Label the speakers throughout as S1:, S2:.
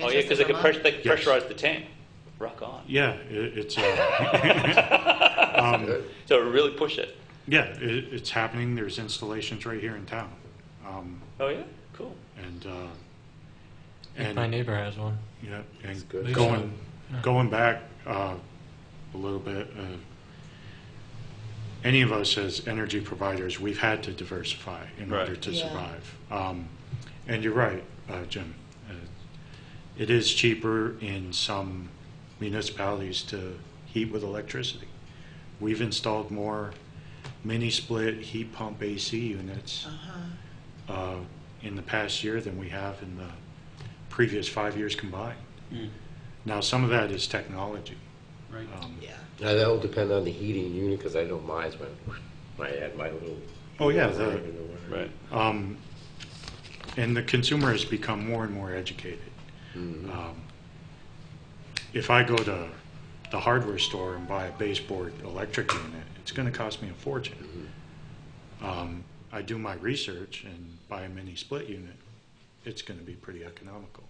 S1: Oh, yeah, because they can pressure,
S2: Manchester,
S1: they can
S3: Yes.
S1: pressurize the tank. Rock on.
S3: Yeah, it, it's uh,
S1: So really push it.
S3: yeah, it, it's happening. There's installations right here in town, um,
S1: Oh, yeah? Cool.
S3: and uh,
S4: My
S3: and
S4: neighbor has one.
S3: yeah, and
S4: good.
S3: going going back uh, a little bit. Uh, any of us as energy providers, we've had to diversify in
S1: Right.
S3: order to
S2: Yeah.
S3: survive. Um, and you're right, uh, Jim. Uh, it is cheaper in some municipalities to heat with electricity. We've installed more mini split heat pump AC units uh, in the past year than we have in the previous five years combined. Now, some of that is technology.
S5: Right.
S3: Um,
S2: Yeah.
S6: Now, that'll depend on the heating unit, because I know mine's went, I had my little.
S3: Oh, yeah, the-
S6: I don't know where.
S1: Right.
S3: Um, And the consumer has become more and more educated. Um, If I go to the hardware store and buy a baseboard electric unit, it's going to cost me a fortune. Um, I do my research and buy a mini split unit, it's going to be pretty economical.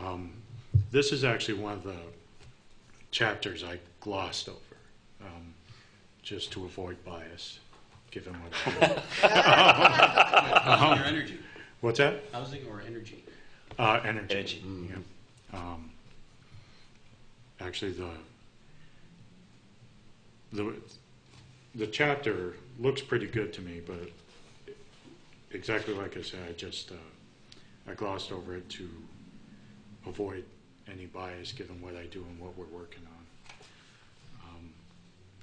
S3: Um, This is actually one of the chapters I glossed over, um, just to avoid bias, given what I know.
S5: Housing or energy?
S3: What's that?
S5: Housing or energy?
S3: Uh, energy.
S1: Energy.
S3: Yeah. Um, actually, the, the the chapter looks pretty good to me, but exactly like I said, I just uh, I glossed over it to avoid any bias given what I do and what we're working on. Um,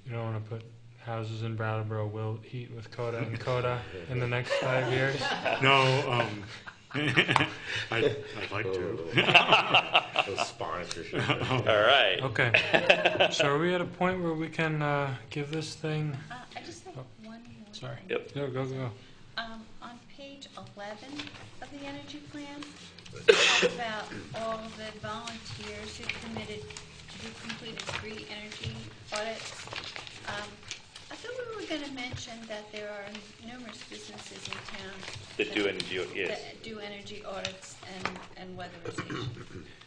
S4: You don't want to put houses in Brattleboro will heat with Coda and Coda in the next five years.
S3: no, um, I'd, I'd like to.
S6: Oh, Those sponsorship.
S1: All right.
S4: Okay. So are we at a point where we can uh, give this thing?
S7: Uh, I just
S5: Oh,
S7: have one more.
S4: Sorry.
S7: thing.
S1: Yep.
S4: No, go, go.
S7: Um, on page eleven of the energy plan, it talks about all the volunteers who committed, who completed three energy audits. Um, I thought we were gonna mention that there are numerous businesses in town.
S1: That do energy au- yes.
S7: That do energy audits and, and weatherization.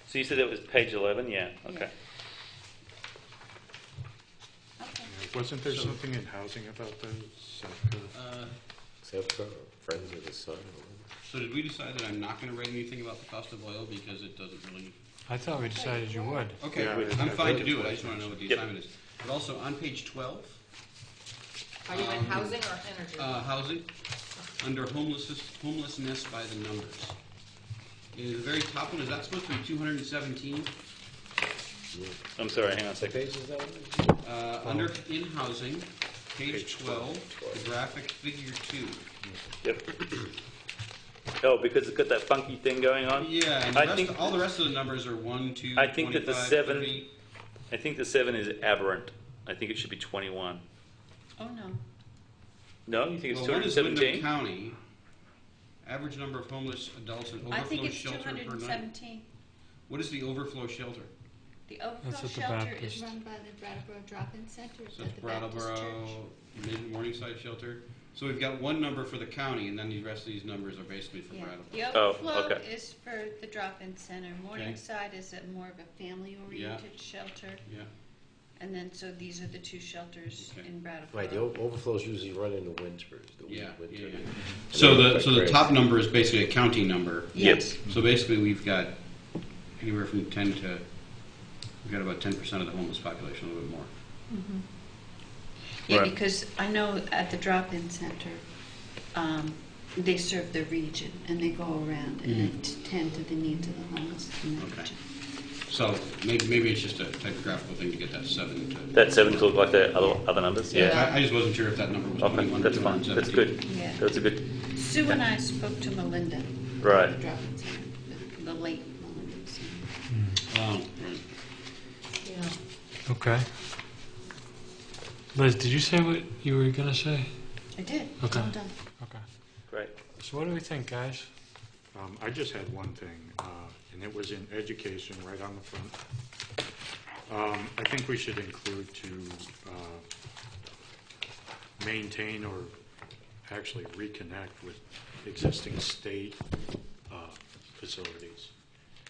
S1: So you said that was page 11? Yeah, okay.
S7: Okay.
S3: Wasn't there something in housing about the South Dakota?
S5: Uh,
S6: Except for Friends of the Sun.
S5: So did we decide that I'm not going to write anything about the cost of oil because it doesn't really?
S4: I thought we decided you would.
S5: Okay,
S3: Yeah, I- I
S5: I'm fine
S3: voted
S5: to do
S3: for
S5: it, I
S3: it.
S5: just want to know what the
S1: Yep.
S5: assignment is. But also, on page 12,
S2: Are you in housing or energy?
S5: uh, housing, under homelessness, homelessness by the numbers. In the very top one, is that supposed to be 217?
S1: I'm sorry, hang on a second.
S6: Page is that one?
S5: Uh, Under, in housing, page 12, the graphic figure 2.
S1: Yep. Oh, because it's got that funky thing going on?
S5: Yeah, and
S1: I
S5: the
S1: think-
S5: rest, all the rest of the numbers are 1, 2,
S1: I think that the
S5: 25,
S1: seven-
S5: 30.
S1: I think the 7 is aberrant. I think it should be 21.
S7: Oh, no.
S1: No, you think it's
S5: Well, one is Wyndham
S1: 217?
S5: County, average number of homeless adults in
S7: I think
S5: overflow
S7: it's two
S5: shelter per night.
S7: hundred and seventeen.
S5: What is the overflow shelter?
S7: The
S4: That's
S7: overflow
S4: at the
S7: shelter
S4: Baptist.
S7: is run by the Brattleboro Drop-In Center
S5: So
S7: at
S5: it's
S7: the Baptist Church.
S5: Brattleboro, Mid Morningside Shelter. So we've got one number for the county, and then the rest of these numbers are basically for
S7: Yeah.
S5: Brattleboro.
S7: The
S1: Oh,
S7: overflow
S1: okay.
S7: is for the drop-in center. Morningside is a more of a family-oriented shelter.
S5: Yeah,
S7: And then, so these are the two shelters
S5: Okay.
S7: in
S6: Right, the
S7: Brattleboro.
S6: o- overflows usually run into winters, the weak
S5: yeah,
S6: winter.
S5: yeah, yeah.
S6: And
S5: So
S6: they
S5: the,
S6: look
S5: so
S6: like
S5: the
S6: crazy.
S5: top number is basically a county number.
S1: Yes.
S5: So basically, we've got anywhere from ten to, we've got about ten percent of the homeless population, a little bit more.
S7: Yeah,
S1: Right.
S7: because I know at the drop-in center, um, they serve the region and they go around
S1: Mm-hmm.
S7: and they tend to the needs of the homeless in the
S5: Okay.
S7: region.
S5: So maybe, maybe it's just a typographical thing to get that seven to.
S1: That 7 look like the other, other numbers? Yeah.
S5: I, I just wasn't sure if that number was
S1: Okay,
S5: twenty-one or
S1: that's fine. That's
S5: 217.
S1: good.
S7: Yeah.
S1: That's a good.
S7: Sue and I spoke to Melinda.
S1: Right.
S7: At the drop-in center, the- the late Melinda. Sue.
S5: Oh, right.
S2: Yeah.
S4: Okay. Liz, did you say what you were gonna say?
S7: I did.
S4: Okay.
S7: Well done.
S4: Okay.
S1: Great.
S4: So what do we think, guys?
S3: Um, I just had one thing, uh, and it was in education, right on the front. Um, I think we should include to uh, maintain or actually reconnect with existing state uh, facilities.